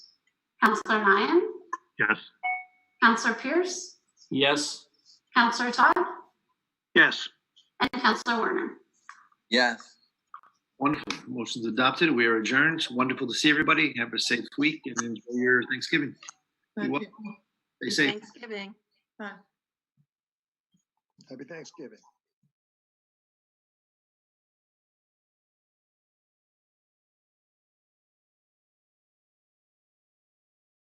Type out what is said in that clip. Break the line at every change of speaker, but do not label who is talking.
Counselor Ryan,
Yes.
Counselor Pierce,
Yes.
Counselor Todd,
Yes.
and Counselor Werner.
Yes.
Wonderful. Motion's adopted. We are adjourned. It's Wonderful to see everybody. Have a safe week and enjoy your Thanksgiving. Be well. Stay safe.
Thanksgiving.
Happy Thanksgiving.